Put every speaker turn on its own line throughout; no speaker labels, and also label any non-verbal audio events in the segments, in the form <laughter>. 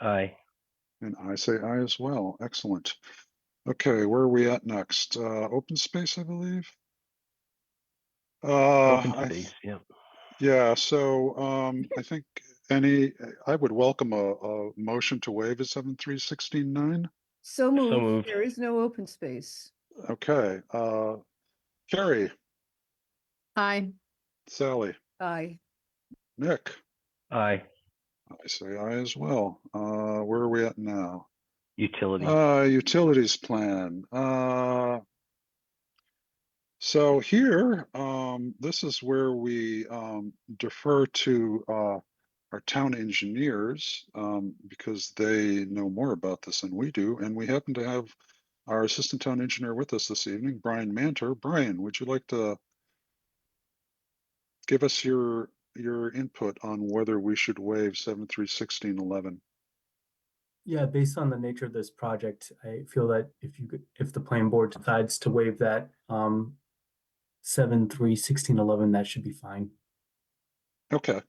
Aye.
And I say aye as well. Excellent. Okay, where are we at next? Uh, open space, I believe. Uh,
Open
I
space, yeah.
Yeah, so um, I think any, I would welcome a, a motion to waive a seven three sixteen nine.
So moved.
moved.
There is no open space.
Okay, uh, Carrie,
Aye.
Sally,
Aye.
Nick,
Aye.
I say I as well. Uh, where are we at now?
Utility.
Uh, utilities plan, uh. So here, um, this is where we, um, defer to, uh, our town engineers, um, because they know more about this than we do, and we happen to have our assistant town engineer with us this evening, Brian Manter. Brian, would you like to give us your, your input on whether we should waive seven, three, sixteen, eleven?
Yeah, based on the nature of this project, I feel that if you could, if the planning board decides to waive that, um, seven, three, sixteen, eleven, that should be fine.
Okay.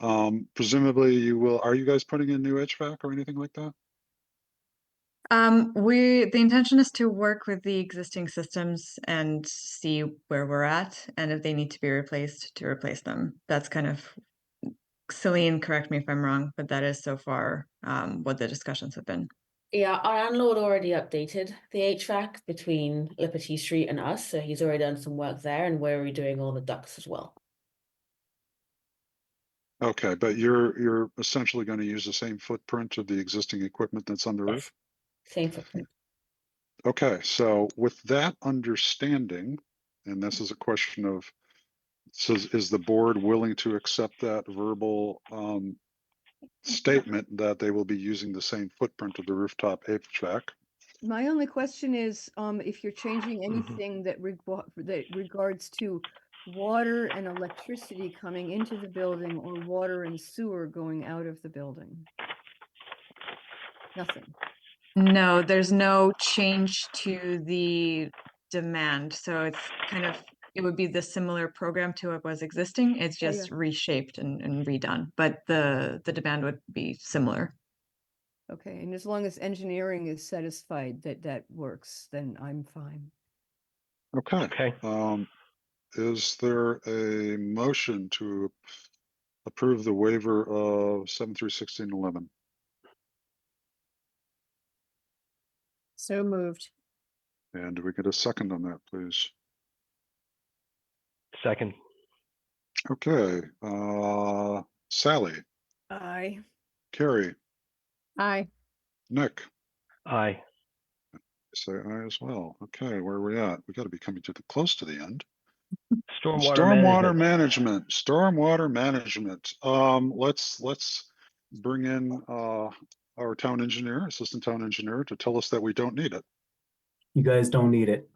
Um, presumably you will, are you guys putting in new HVAC or anything like that?
Um, we, the intention is to work with the existing systems and see where we're at and if they need to be replaced to replace them. That's kind of, Celine, correct me if I'm wrong, but that is so far, um, what the discussions have been.
Yeah, our landlord already updated the HVAC between Liberty Street and us, so he's already done some work there, and we're redoing all the ducts as well.
Okay, but you're, you're essentially gonna use the same footprint of the existing equipment that's on the roof?
Same footprint.
Okay, so with that understanding, and this is a question of, says, is the board willing to accept that verbal, um, statement that they will be using the same footprint of the rooftop HVAC?
My only question is, um, if you're changing
Mhm.
anything that regu- that regards to water and electricity coming into the building or water and sewer going out of the building? Nothing.
No, there's no change to the demand, so it's kind of, it would be the similar program to what was existing. It's
Yeah, yeah.
just reshaped and, and redone, but the, the demand would be similar.
Okay, and as long as engineering is satisfied that that works, then I'm fine.
Okay.
Okay.
Um, is there a motion to approve the waiver of seven through sixteen eleven?
So moved.
And do we get a second on that, please?
Second.
Okay, uh, Sally,
Aye.
Carrie,
Aye.
Nick,
Aye.
say aye as well. Okay, where are we at? We gotta be coming to the, close to the end.
Stormwater. management.
Stormwater management, stormwater management. Um, let's, let's bring in, uh, our town engineer, assistant town engineer to tell us that we don't need it.
You guys don't need it.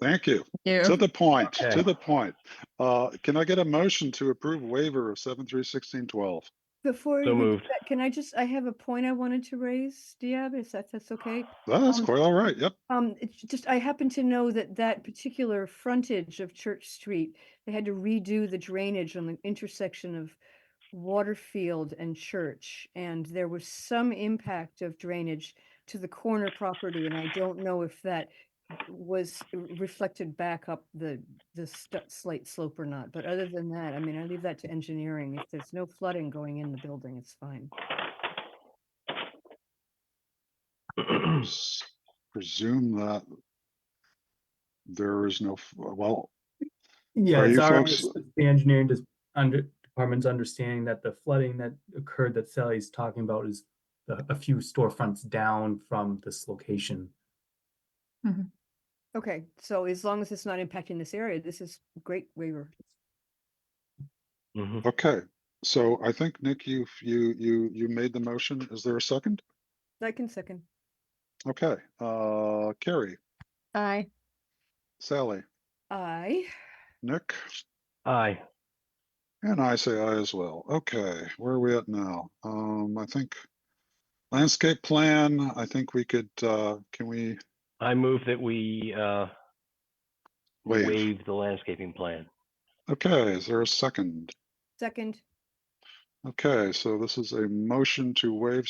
Thank you.
You.
To the point,
Okay.
to the point. Uh, can I get a motion to approve waiver of seven through sixteen twelve?
Before
So
you do
moved.
that, can I just, I have a point I wanted to raise, Diab, if that- that's okay?
That's
Um,
quite all
<clears throat>
right. Yep.
Um, it's just, I happen to know that that particular frontage of Church Street, they had to redo the drainage on the intersection of Waterfield and Church, and there was some impact of drainage to the corner property, and I don't know if that was r- reflected back up the, the stu- slight slope or not, but other than that, I mean, I leave that to engineering. If there's no flooding going in the building, it's fine.
S- Presume that there is no, f- well,
Yeah,
Are
it's
you
our,
folks-
underst- the engineering dis- under, department's understanding that the flooding that occurred that Sally's talking about is a, a few storefronts down from this location.
Okay, so as long as it's not impacting this area, this is great waiver.
Mhm.
okay. So I think Nick, you, you, you, you made the motion. Is there a second?
I can second.
Okay, uh, Carrie,
Aye.
Sally,
Aye.
Nick,
Aye.
and I say I as well. Okay, where are we at now? Um, I think landscape plan, I think we could, uh, can we
I move that we, uh,
Waive.
waive the landscaping plan.
Okay, is there a second?
Second.
Okay, so this is a motion to waive